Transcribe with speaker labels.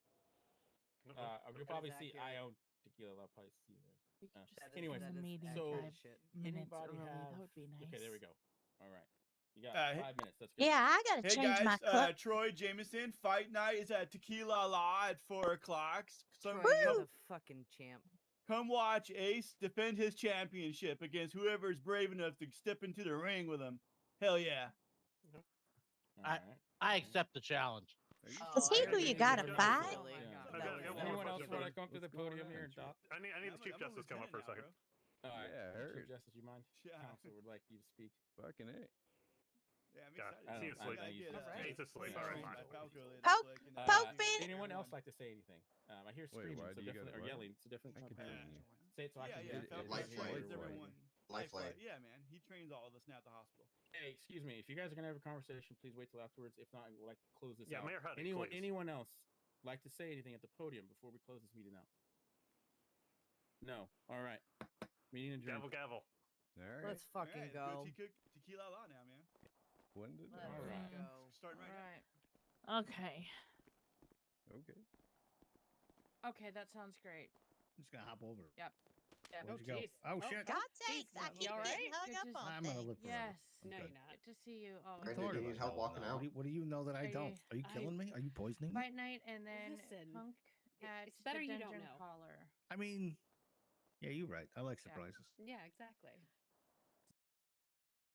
Speaker 1: Uh-huh.
Speaker 2: uh,
Speaker 3: That
Speaker 2: you'll
Speaker 3: is
Speaker 2: probably see IO
Speaker 3: accurate.
Speaker 2: tequila. I'll probably see you there.
Speaker 4: We could
Speaker 2: Uh,
Speaker 4: just
Speaker 3: That is-
Speaker 4: leave
Speaker 2: anyways,
Speaker 4: the
Speaker 3: that is
Speaker 4: meeting
Speaker 2: so-
Speaker 3: accurate
Speaker 4: five
Speaker 3: shit.
Speaker 4: minutes
Speaker 2: Anybody
Speaker 4: early.
Speaker 2: have-
Speaker 4: That would be nice.
Speaker 2: Okay, there we go. All right, you got
Speaker 5: Uh, hey-
Speaker 2: five minutes. That's good.
Speaker 6: Yeah, I gotta
Speaker 5: Hey
Speaker 6: change my
Speaker 5: guys,
Speaker 6: cup.
Speaker 5: uh, Troy Jameson, fight night is at Tequila La at four o'clock. So
Speaker 3: Troy,
Speaker 5: come,
Speaker 3: you're the fucking champ.
Speaker 5: come watch Ace defend his championship against whoever's brave enough to step into the ring with him. Hell yeah!
Speaker 2: All
Speaker 7: I-
Speaker 2: right.
Speaker 7: I accept the challenge.
Speaker 6: Is
Speaker 3: Oh,
Speaker 6: he who you gotta
Speaker 3: fight?
Speaker 2: Yeah.
Speaker 1: I gotta get one more
Speaker 2: Anyone else
Speaker 1: question
Speaker 2: want to
Speaker 1: first.
Speaker 2: come up to the
Speaker 1: What's going
Speaker 2: podium
Speaker 1: on,
Speaker 2: here and
Speaker 1: Chief?
Speaker 2: talk?
Speaker 1: I need, I need the chief justice to come up for a second.
Speaker 2: All right.
Speaker 8: Yeah,
Speaker 2: Chief
Speaker 8: heard.
Speaker 2: Justice, you mind?
Speaker 5: Yeah.
Speaker 2: Council would like you to speak.
Speaker 8: Fucking it.
Speaker 5: Yeah, I'm
Speaker 1: Yeah,
Speaker 5: excited.
Speaker 1: I
Speaker 5: I
Speaker 1: see you
Speaker 5: gotta
Speaker 1: asleep.
Speaker 5: get,
Speaker 2: He's
Speaker 5: uh,
Speaker 2: asleep.
Speaker 1: He's asleep,
Speaker 5: yeah,
Speaker 1: all right,
Speaker 5: my
Speaker 1: fine.
Speaker 5: Falco later,
Speaker 6: Pope-
Speaker 5: so I can,
Speaker 2: Uh,
Speaker 5: uh,
Speaker 6: Pope
Speaker 5: see
Speaker 6: in-
Speaker 2: anyone
Speaker 5: everyone.
Speaker 2: else like to say anything? Um, I hear screaming,
Speaker 8: why
Speaker 2: so
Speaker 8: do you
Speaker 2: definitely,
Speaker 8: gotta-
Speaker 2: or
Speaker 8: why-
Speaker 2: yelling. It's a different.
Speaker 8: I could
Speaker 2: okay.
Speaker 8: do
Speaker 5: Yeah.
Speaker 8: it.
Speaker 2: Say it so I
Speaker 5: yeah,
Speaker 2: can
Speaker 5: yeah,
Speaker 2: hear.
Speaker 8: Falco
Speaker 5: Falco
Speaker 8: Life
Speaker 5: trains
Speaker 8: flight.
Speaker 5: everyone.
Speaker 9: Lifeline.
Speaker 5: Yeah, man, he trains all of us now at the hospital.
Speaker 2: Hey, excuse me. If you guys are gonna have a conversation, please wait till afterwards. If not, we'll like to close this
Speaker 1: Yeah,
Speaker 2: out.
Speaker 1: Mayor Huddy,
Speaker 2: anyone,
Speaker 1: please.
Speaker 2: anyone else like to say anything at the podium before we close this meeting out? No. All right. Meeting adjourned.
Speaker 1: Gavel, gavel.
Speaker 8: All right.
Speaker 3: Let's fucking
Speaker 5: Alright, let's
Speaker 3: go.
Speaker 5: tequi- Tequila La now, man.
Speaker 8: when did
Speaker 4: Let's
Speaker 8: I-
Speaker 2: All right.
Speaker 4: go.
Speaker 5: Starting right now.
Speaker 4: Okay.
Speaker 8: Okay.
Speaker 10: Okay, that sounds great.
Speaker 11: I'm just gonna hop over.
Speaker 10: Yep. Yep.
Speaker 11: Where'd you go?
Speaker 10: jeez.
Speaker 11: Oh, shit.
Speaker 6: God
Speaker 10: geez,
Speaker 6: sakes, I
Speaker 10: you
Speaker 6: keep
Speaker 10: all
Speaker 6: getting
Speaker 10: right?
Speaker 6: hung
Speaker 10: Good to-
Speaker 6: up on
Speaker 11: I'm gonna
Speaker 6: things.
Speaker 11: look for
Speaker 10: Yes.
Speaker 11: No, you're Okay.
Speaker 10: Good to see you. Oh,
Speaker 9: Brandon,
Speaker 11: Sorry
Speaker 9: do you
Speaker 11: about
Speaker 9: need help
Speaker 11: that.
Speaker 9: walking
Speaker 11: What
Speaker 9: out?
Speaker 11: do, you, what do you know that I
Speaker 10: Hey,
Speaker 11: don't? Are you
Speaker 10: I-
Speaker 11: killing me? Are you poisoning me?
Speaker 10: Fight night and then
Speaker 12: Listen,
Speaker 10: punk
Speaker 12: i-
Speaker 10: at
Speaker 12: it's better
Speaker 10: the
Speaker 12: you don't
Speaker 10: dungeon
Speaker 12: know.
Speaker 10: caller.
Speaker 11: I mean, yeah, you're right. I like
Speaker 10: Yeah.
Speaker 11: surprises.
Speaker 12: Yeah, exactly.